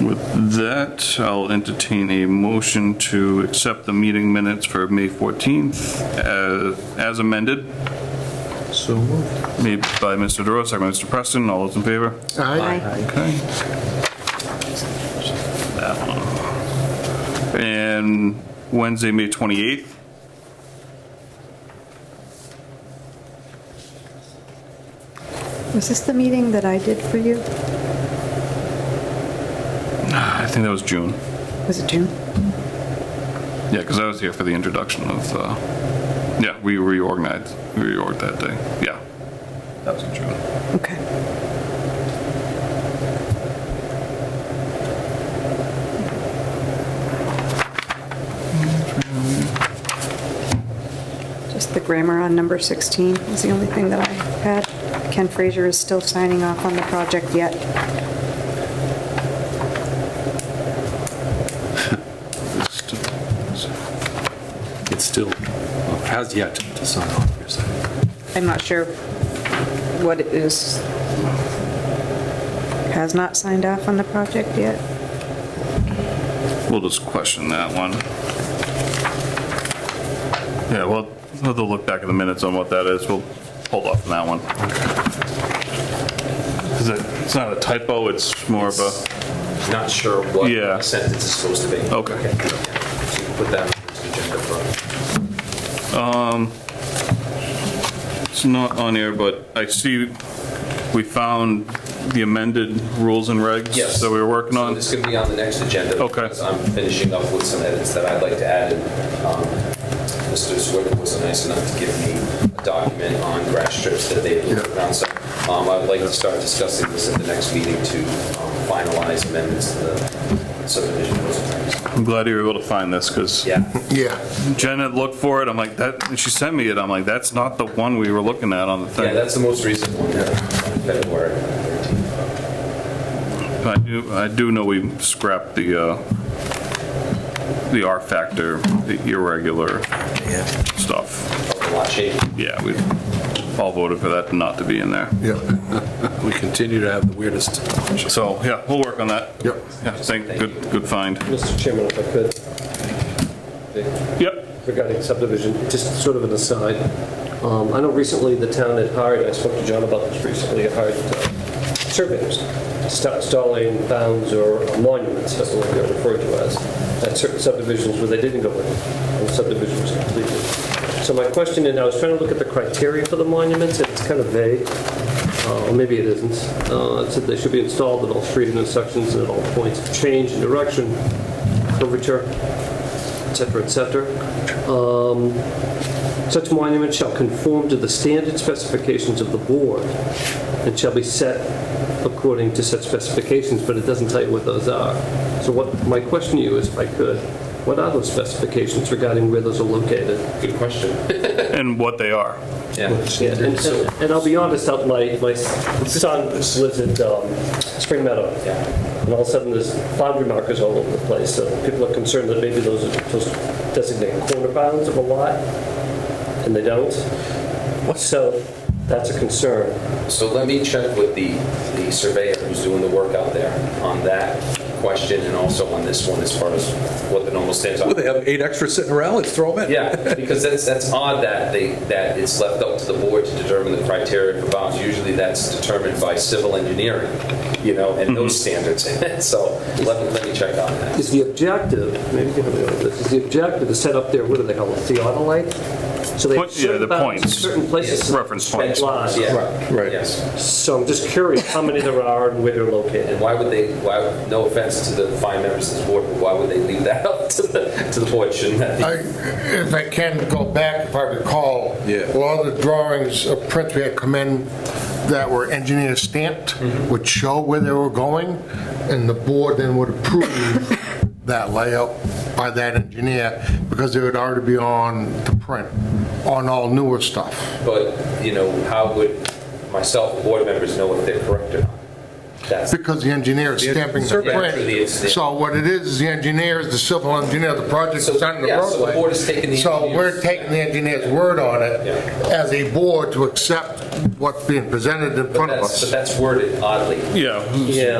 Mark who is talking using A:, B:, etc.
A: With that, I'll entertain a motion to accept the meeting minutes for May 14th uh, as amended,
B: So moved.
A: made by Mr. DeRosa, second by Mr. Preston. All those in favor?
B: Aye.
A: Okay. That one. And Wednesday, May 28th?
C: Was this the meeting that I did for you?
A: I think that was June.
C: Was it June?
A: Yeah, because I was here for the introduction of, uh, yeah, we reorganized, reorged that day. Yeah. That was in June.
C: Okay. Just the grammar on number 16 is the only thing that I had. Ken Fraser is still signing off on the project yet.
B: It's still, has yet to sign off, you're saying?
C: I'm not sure what it is. Has not signed off on the project yet.
A: We'll just question that one. Yeah, well, we'll have to look back at the minutes on what that is. We'll hold off on that one. Is it, it's not a typo, it's more of a,
D: Not sure what
A: Yeah.
D: sentence is supposed to be.
A: Okay.
D: So you Put that on the agenda for,
A: it's not on here, but I see we found the amended rules and regs
D: Yes.
A: that we were working on.
D: this could be on the next agenda.
A: Okay.
D: because I'm finishing up with some edits that I'd like to add. and, um, Mr. Swift was nice enough to give me a document on grass strips that they had put around. So um, I would like to start discussing this at the next meeting to um, finalize amendments to the subdivision. rules and regs.
A: I'm glad you were able to find this, because
D: Yeah,
E: Yeah,
A: Jenna looked for it, I'm like, that, and she sent me it, I'm like, that's not the one we were looking at on the
D: yeah,
A: thing.
D: that's the most recent one, yeah, February 13th.
A: I do, I do know we scrapped the, uh, the R factor, the irregular stuff.
D: A lot shape.
A: Yeah, we all voted for that not to be in there.
E: yeah,
B: We continue to have the weirdest.
A: So, yeah, we'll work on that.
E: yep.
A: Yeah, thank, good, good find.
F: Mr. Chairman, if I could,
A: Yep.
F: regarding subdivision, just sort of an aside. Um, I know recently the town had hired, I spoke to John about this recently, had hired uh, surveyors, sta- installing bounds or monuments, as what they're referred to as, at certain subdivisions where they didn't go in, and the subdivision was completed. So my question, and I was trying to look at the criteria for the monuments, and it's kind of vague, uh, or maybe it isn't. Uh, It said they should be installed at all street intersections and at all points of change in direction, curvature, et cetera, et cetera. Um, Such monuments shall conform to the standard specifications of the board and shall be set according to such specifications, but it doesn't tell you what those are. So what, my question to you is, if I could, what are those specifications regarding where those are located?
D: Good question.
A: And what they are.
D: Yeah.
F: Yeah, And and- and I'll be honest, uh, my, my son lives at um, Spring Meadow. And all of a sudden, there's boundary markers all over the place, so people are concerned that maybe those are supposed to designate corner bounds of a lot, and they don't. So that's a concern.
D: So let me check with the, the surveyor who's doing the work out there on that question and also on this one as far as what the normal stands
B: Well,
D: are.
B: they have eight extra sitting around, let's throw them in.
D: Yeah, because that's, that's odd that they, that it's left up to the board to determine the criteria for bounds. Usually that's determined by civil engineering, you know, and those standards. So let me, let me check on that.
F: Is the objective, maybe you can help me with this, is the objective to set up there, what do they call it, theodolite? So they have
A: Point- yeah, the
F: certain bounds,
A: points.
F: certain places.
A: Reference points.
F: Lines.
D: Yeah.
B: Right.
D: Yes.
F: So I'm just curious how many there are and where they're located.
D: And why would they, why, no offense to the fine members of this board, but why would they leave that up to the, to the board? Shouldn't that be?
E: I- If I can go back, if I recall,
B: Yeah.
E: a lot of the drawings of prints we had come in that were engineer stamped would show where they were going, and the board then would approve that layout by that engineer, because they would already be on the print, on all newer stuff.
D: But, you know, how would myself, board members know if they're correct or not? That's,
E: Because the engineer is stamping
D: Yeah,
E: the
D: through the
E: print.
D: stamp.
E: So what it is, is the engineer is the civil engineer, the project
D: So,
E: is on the
D: yeah,
E: roadway.
D: so the board is taking the
E: So
D: engineer's-
E: we're taking the engineer's word on it
D: Yeah.
E: as a board to accept what's being presented in
D: but
E: front of
D: that's, but
E: us.
D: that's worded oddly.
A: Yeah,
F: Yeah.